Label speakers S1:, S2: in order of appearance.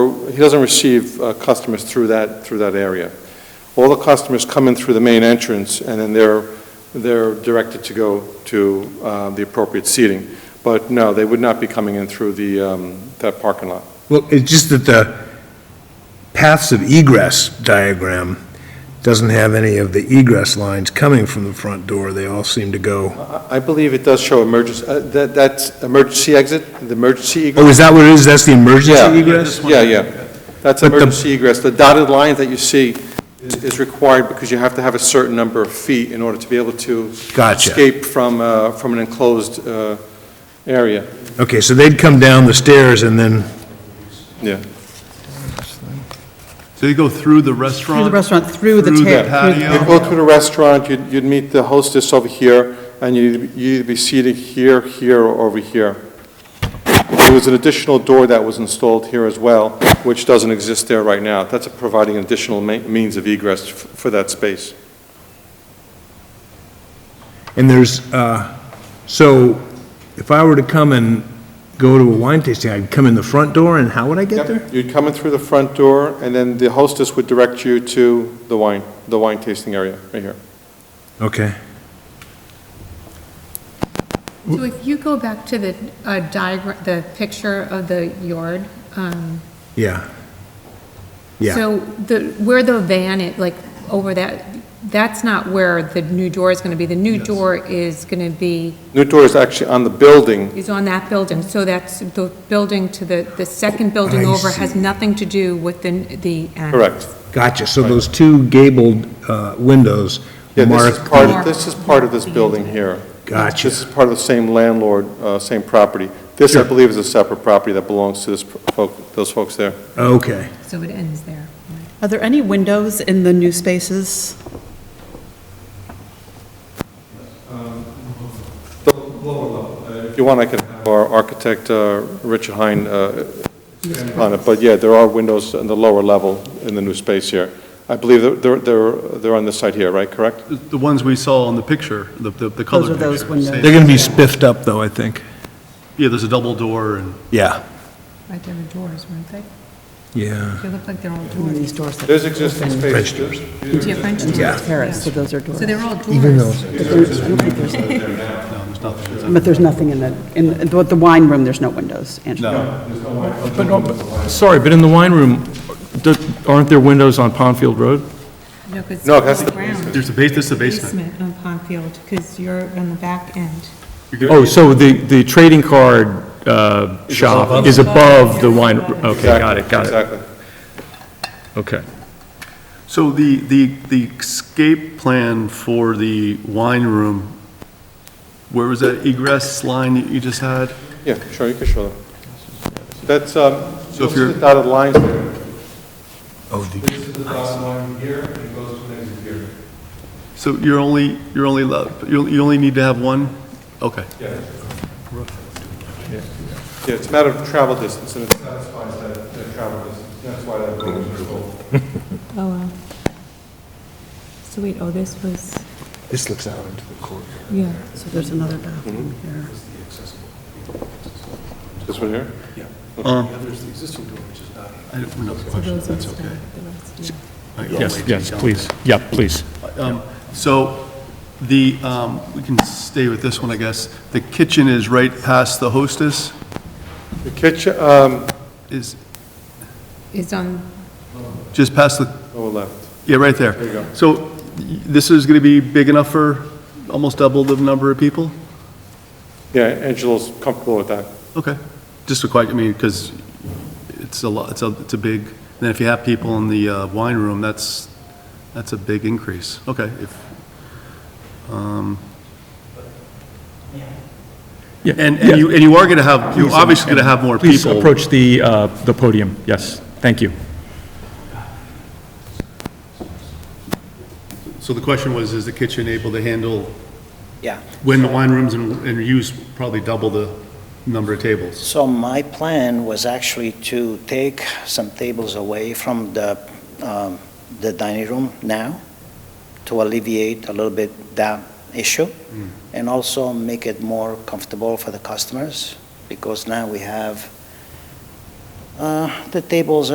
S1: He doesn't receive uh, customers through that, through that area. All the customers come in through the main entrance, and then they're, they're directed to go to uh, the appropriate seating. But no, they would not be coming in through the, um, that parking lot.
S2: Well, it's just that the paths of egress diagram doesn't have any of the egress lines coming from the front door. They all seem to go,
S1: I I believe it does show emergency, uh, that, that's emergency exit, the emergency egress.
S2: oh, is that what it is? That's the
S1: Yeah.
S2: emergency egress?
S1: Yeah, yeah. That's
S2: But the-
S1: emergency egress. The dotted line that you see is is required because you have to have a certain number of feet in order to be able to
S2: Gotcha.
S1: escape from, uh, from an enclosed uh, area.
S2: Okay, so they'd come down the stairs and then,
S1: Yeah.
S3: So you go through the restaurant?
S4: Through the restaurant, through the
S3: Through
S4: ter-
S3: the
S4: through the-
S1: You
S3: patio?
S1: go to the restaurant, you'd you'd meet the hostess over here, and you'd you'd be seated here, here, or over here. There was an additional door that was installed here as well, which doesn't exist there right now. That's providing additional ma- means of egress f- for that space.
S2: and there's, uh, so if I were to come and go to a wine tasting, I'd come in the front door and how would I get
S1: Yep.
S2: there?
S1: You'd come in through the front door, and then the hostess would direct you to the wine, the wine tasting area, right here.
S2: Okay.
S5: So if you go back to the diagram, the picture of the yard, um,
S2: Yeah. Yeah.
S5: so the, where the van, it, like, over that, that's not where the new door is going to be. The new door is going to be,
S1: New door is actually on the building.
S5: is on that building, so that's the building to the, the second building
S2: I
S5: over has
S2: see.
S5: nothing to do with the, the annex.
S1: Correct.
S2: Gotcha. So those two gabled uh, windows
S1: Yeah, this
S2: mark
S1: is part, of- this is part of this building here.
S2: Gotcha.
S1: This is part of the same landlord, uh, same property. This, I believe, is a separate property that belongs to this folk, those folks there.
S2: Okay.
S5: So it ends there.
S4: Are there any windows in the new spaces?
S1: If you want, I can have our architect, uh, Richard Hein, uh, expand on it, but yeah, there are windows in the lower level in the new space here. I believe they're- they're, they're, they're on this side here, right, correct?
S3: The the ones we saw on the picture, the, the the colored
S4: are
S3: picture.
S4: those windows.
S3: Same.
S2: They're going to be spiffed up, though, I think.
S3: Yeah, there's a double door and,
S2: Yeah.
S5: Right there were doors, weren't they?
S2: Yeah.
S5: They look like they're all doors.
S4: These doors that
S1: There's existing space.
S5: Different doors.
S2: Yeah.
S4: terrace, so those are
S5: So
S4: doors.
S5: they're all doors.
S2: Even though-
S3: no, there's nothing. It's a-
S4: But there's nothing in the, in the the wine room, there's no windows, Angela.
S3: No,
S6: But, no, but- sorry, but in the wine room, there- aren't there windows on Pondfield Road?
S5: No, 'cause
S1: No,
S5: it's
S1: that's
S5: on
S1: the
S5: ground.
S3: there's the base, this is the basement.
S5: Basement on Pondfield, because you're on the back end.
S6: Oh, so the, the trading card uh, shop is above the wine, okay, got it, got it,
S1: Exactly.
S6: okay.
S3: So the, the, the escape plan for the wine room, where was that egress line that you just had?
S1: Yeah, sure, you can show them. That's, um,
S3: So
S1: you'll
S3: if
S1: see the
S3: you're-
S1: dotted lines there.
S2: Oh, the
S1: This is the dotted line here, and it goes to next here.
S3: So you're only, you're only, lo- you you only need to have one? Okay.
S1: Yeah, it's a matter of travel distance, and it satisfies that, that travel distance. That's why that road is full.
S5: Oh, wow. So wait, oh, this was,
S2: This looks out into the court.
S5: yeah.
S4: So there's another bathroom here.
S1: This one here?
S3: I don't know.
S5: Those are stuck, the rest, yeah.
S6: Yes, yes, please, yeah, please.
S3: Um, So the, um, we can stay with this one, I guess. The kitchen is right past the hostess,
S1: The kitchen, um,
S3: is
S5: It's on,
S3: just past the,
S1: oh, left.
S3: yeah, right there. There you go. So y- this is going to be big enough for almost double the number of people?
S1: Yeah, Angelo's comfortable with that.
S3: Okay, just to quite, I mean, because it's a lot, it's a, it's a big, then if you have people in the uh, wine room, that's, that's a big increase. Okay, if, um,
S6: Yeah,
S3: and,
S6: yeah.
S3: and you, and you are going to have, you're
S6: Please,
S3: obviously
S6: and-
S3: going to have more
S6: Please
S3: people.
S6: approach the, uh, the podium, yes, thank you.
S3: So the question was, is the kitchen able to handle,
S7: Yeah,
S3: when the wine rooms and, and use probably double the number of tables?
S7: so my plan was actually to take some tables away from the, um, the dining room now to alleviate a little bit that issue and also make it more comfortable for the customers because now we have, uh, the tables